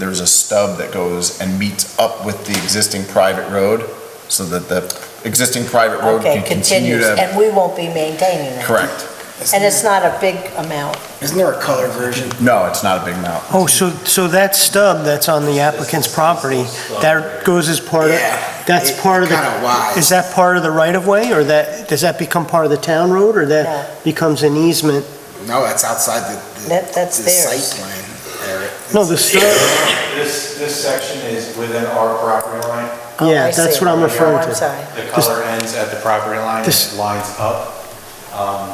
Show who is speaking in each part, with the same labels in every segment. Speaker 1: there's a stub that goes and meets up with the existing private road, so that the existing private road
Speaker 2: Okay,
Speaker 1: can continue
Speaker 2: continues,
Speaker 1: to,
Speaker 2: and we won't be maintaining it.
Speaker 1: correct.
Speaker 2: And it's not a big amount.
Speaker 3: Isn't there a color version?
Speaker 1: No, it's not a big amount.
Speaker 4: Oh, so, so that stub that's on the applicant's property, that goes as part of, that's
Speaker 3: It-
Speaker 4: part of the...
Speaker 3: kinda wide.
Speaker 4: Is that part of the right-of-way, or that, does that become part of the town road, or
Speaker 2: No.
Speaker 4: that becomes an easement?
Speaker 3: No, that's outside the, the.
Speaker 2: That- that's
Speaker 3: the
Speaker 2: theirs.
Speaker 3: Site plan, Eric.
Speaker 4: No, the stub,
Speaker 5: This, this section is within our property line.
Speaker 2: Oh,
Speaker 4: yeah,
Speaker 2: I see.
Speaker 4: that's what I'm referring
Speaker 2: Oh, I'm
Speaker 4: to.
Speaker 2: sorry.
Speaker 5: The color ends at the property line,
Speaker 4: This-
Speaker 5: it lines up. Um,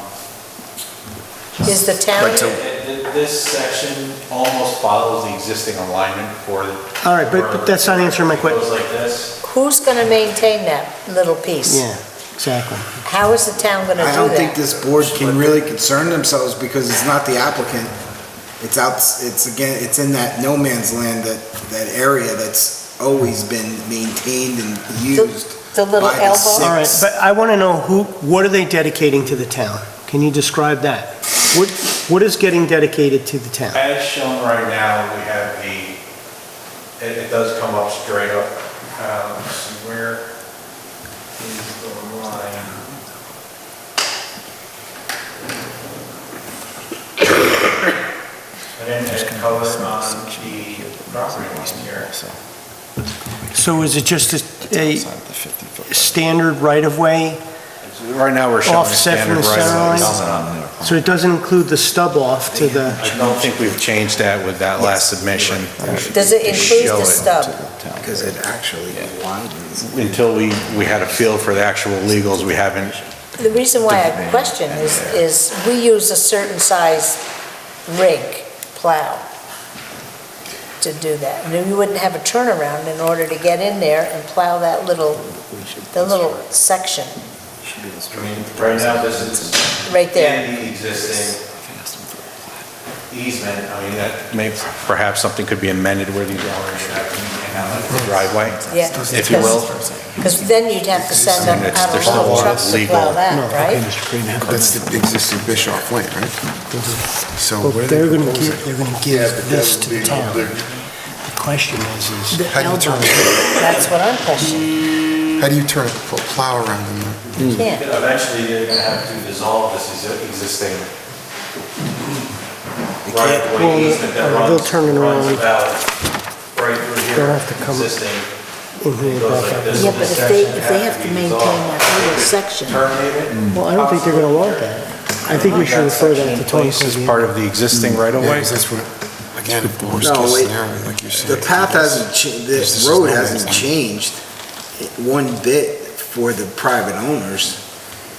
Speaker 2: Is the town,
Speaker 1: Right, so-
Speaker 5: th- th- This section almost follows the existing alignment for the.
Speaker 4: All right, but- but that's not answering my que-
Speaker 5: It goes like this.
Speaker 2: who's going to maintain that little piece?
Speaker 4: Yeah, exactly.
Speaker 2: How is the town going to
Speaker 3: I
Speaker 2: do
Speaker 3: don't think
Speaker 2: that?
Speaker 3: this board can really concern themselves because it's not the applicant. It's out, it's again, it's in that no man's land, that, that area that's always been maintained and used.
Speaker 2: The little
Speaker 3: by the
Speaker 2: elbow?
Speaker 3: city.
Speaker 4: All right,
Speaker 3: Six.
Speaker 4: but I want to know who, what are they dedicating to the town? Can you describe that? What, what is getting dedicated to the town?
Speaker 5: As shown right now, we have the, it, it does come up straight up. Uh, let's see, where is the line? And then it colors on the property line here.
Speaker 4: So is it just a- a
Speaker 1: Outside the 50-foot.
Speaker 4: standard right-of-way?
Speaker 5: Right now, we're showing
Speaker 4: Offset from
Speaker 5: standard
Speaker 4: the
Speaker 5: right
Speaker 4: center
Speaker 5: of
Speaker 4: line? So it doesn't include the stub off to the...
Speaker 5: I don't think we've changed that with that last submission.
Speaker 2: Does it
Speaker 5: To
Speaker 2: include
Speaker 5: show
Speaker 2: the
Speaker 5: it.
Speaker 2: stub?
Speaker 3: Because it actually widens.
Speaker 5: Until we, we had a feel for the actual legals, we haven't,
Speaker 2: The reason why I question is, is we use a certain size rig plow to do that. And then you wouldn't have a turnaround in order to get in there and plow that little, the little section
Speaker 5: I mean, right now, this is
Speaker 2: right there.
Speaker 5: in the existing easement, I mean, that may, perhaps something could be amended where these owners should have and have a driveway,
Speaker 2: Yeah.
Speaker 5: if you will.
Speaker 2: Because then you'd have to send
Speaker 5: I mean,
Speaker 2: them
Speaker 5: it's-
Speaker 2: out
Speaker 5: there's
Speaker 2: of
Speaker 5: still a
Speaker 2: long
Speaker 5: lot of
Speaker 2: trucks to plow
Speaker 5: legal-
Speaker 2: that, right?
Speaker 6: That's the existing Bischoff Lane, right? So
Speaker 4: Mm-hmm. Well,
Speaker 6: what are
Speaker 4: they're
Speaker 6: they
Speaker 4: gonna
Speaker 6: proposing?
Speaker 4: give, they're gonna
Speaker 6: Yeah,
Speaker 4: give
Speaker 6: but that
Speaker 4: this
Speaker 6: would
Speaker 4: to the
Speaker 6: be-
Speaker 4: town.
Speaker 6: they're-
Speaker 4: The question is, is
Speaker 6: How do you turn,
Speaker 2: That's what I'm questioning.
Speaker 6: how do you turn a pl- plow around in there?
Speaker 2: You can't.
Speaker 5: Eventually, they're gonna have to dissolve this exi- existing
Speaker 3: They can't-
Speaker 4: Well,
Speaker 5: right-of-way easement that
Speaker 4: uh, they'll
Speaker 5: runs,
Speaker 4: turn it
Speaker 5: runs
Speaker 4: around.
Speaker 5: about right through
Speaker 4: They'll
Speaker 5: here,
Speaker 4: have to come-
Speaker 5: existing.
Speaker 4: in here
Speaker 5: It goes
Speaker 4: back
Speaker 5: like
Speaker 4: up.
Speaker 5: this,
Speaker 2: Yeah,
Speaker 5: and
Speaker 2: but
Speaker 5: this
Speaker 2: if they,
Speaker 5: section
Speaker 2: if they
Speaker 5: has
Speaker 2: have to
Speaker 5: to be
Speaker 2: maintain
Speaker 5: dissolved.
Speaker 2: that little section,
Speaker 5: Terminate it?
Speaker 4: Well, I don't think they're gonna want that. I think we should refer that to Tony
Speaker 5: Place is
Speaker 4: Sylvia.
Speaker 5: part of the existing
Speaker 6: Yeah,
Speaker 5: right-of-way?
Speaker 6: 'cause that's what, again, the worst
Speaker 3: No,
Speaker 6: case
Speaker 3: it-
Speaker 6: scenario, like you're saying.
Speaker 3: The path hasn't, cha-
Speaker 6: This
Speaker 3: the
Speaker 6: is
Speaker 3: road
Speaker 6: no man's
Speaker 3: hasn't
Speaker 6: land.
Speaker 3: changed one bit for the private owners.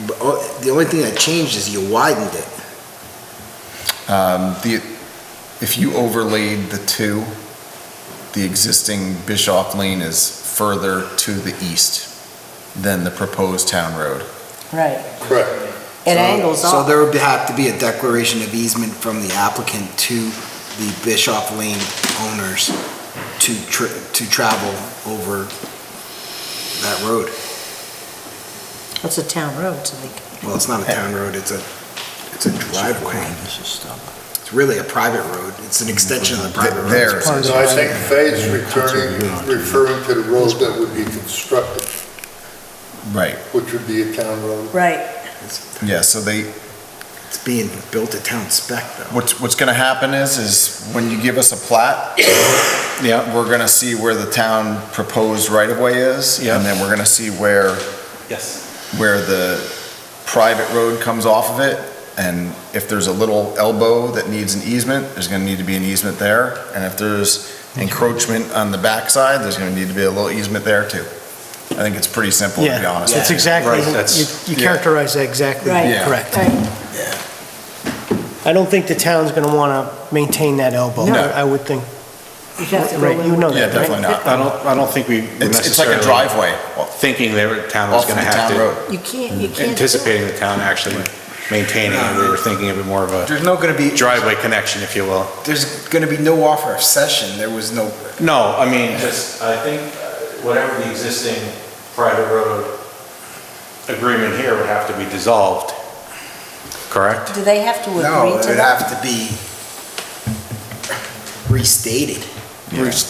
Speaker 3: But oh, the only thing that changed is you widened it.
Speaker 1: Um, the, if you overlaid the two, the existing Bischoff Lane is further to the east than the proposed town road.
Speaker 2: right,
Speaker 6: Correct.
Speaker 2: it
Speaker 3: So-
Speaker 2: angles
Speaker 3: So
Speaker 2: off.
Speaker 3: there would have to be a declaration of easement from the applicant to the Bischoff Lane owners to, tr- to travel over that road.
Speaker 2: It's a town road, so they,
Speaker 3: Well, it's not a town road, it's a, it's a driveway. It's really a private road. It's an extension of the private road.
Speaker 1: There. It's part
Speaker 6: No, I think Faye's returning, referring to the road that would be constructed,
Speaker 1: Right.
Speaker 6: which would be a town road.
Speaker 2: right,
Speaker 1: Yeah, so they,
Speaker 3: It's being built at town spec though.
Speaker 1: What's, what's gonna happen is, is when you give us a plat, yeah, we're gonna see where the town proposed right-of-way is,
Speaker 5: Yeah.
Speaker 1: and then we're gonna see where,
Speaker 5: Yes.
Speaker 1: where the private road comes off of it, and if there's a little elbow that needs an easement, there's gonna need to be an easement there, and if there's encroachment on the backside, there's gonna need to be a little easement there too. I think it's pretty simple, to be
Speaker 4: Yeah,
Speaker 1: honest. with
Speaker 4: that's
Speaker 1: you.
Speaker 4: exactly,
Speaker 5: Right, that's-
Speaker 4: you- you
Speaker 1: yeah.
Speaker 4: characterize that exactly
Speaker 2: right.
Speaker 1: Yeah.
Speaker 4: correct.
Speaker 2: Right.
Speaker 4: I don't think the town's gonna wanna maintain that elbow,
Speaker 1: No.
Speaker 4: I would think.
Speaker 2: You'd have to go
Speaker 4: Right, you
Speaker 2: in.
Speaker 4: know
Speaker 1: Yeah,
Speaker 4: that,
Speaker 1: definitely not.
Speaker 4: right?
Speaker 5: I don't, I don't think we
Speaker 1: It's, it's like a
Speaker 5: necessarily
Speaker 1: driveway off
Speaker 5: thinking their town was
Speaker 1: of the
Speaker 5: going to have
Speaker 1: town
Speaker 5: to,
Speaker 1: road.
Speaker 2: You can't, you can't. do it.
Speaker 5: anticipating the town actually maintaining it. We were thinking of it more of a
Speaker 3: There's no gonna be,
Speaker 5: driveway connection, if you will.
Speaker 3: there's gonna be no offer of session. There was no
Speaker 5: No, I mean, just, I think uh, whatever the existing private road agreement here would have to be dissolved, correct?
Speaker 2: Do they have to
Speaker 3: No,
Speaker 2: agree
Speaker 3: it
Speaker 2: to
Speaker 3: would
Speaker 2: that?
Speaker 3: have to be restated.
Speaker 7: Yeah.
Speaker 3: Bruce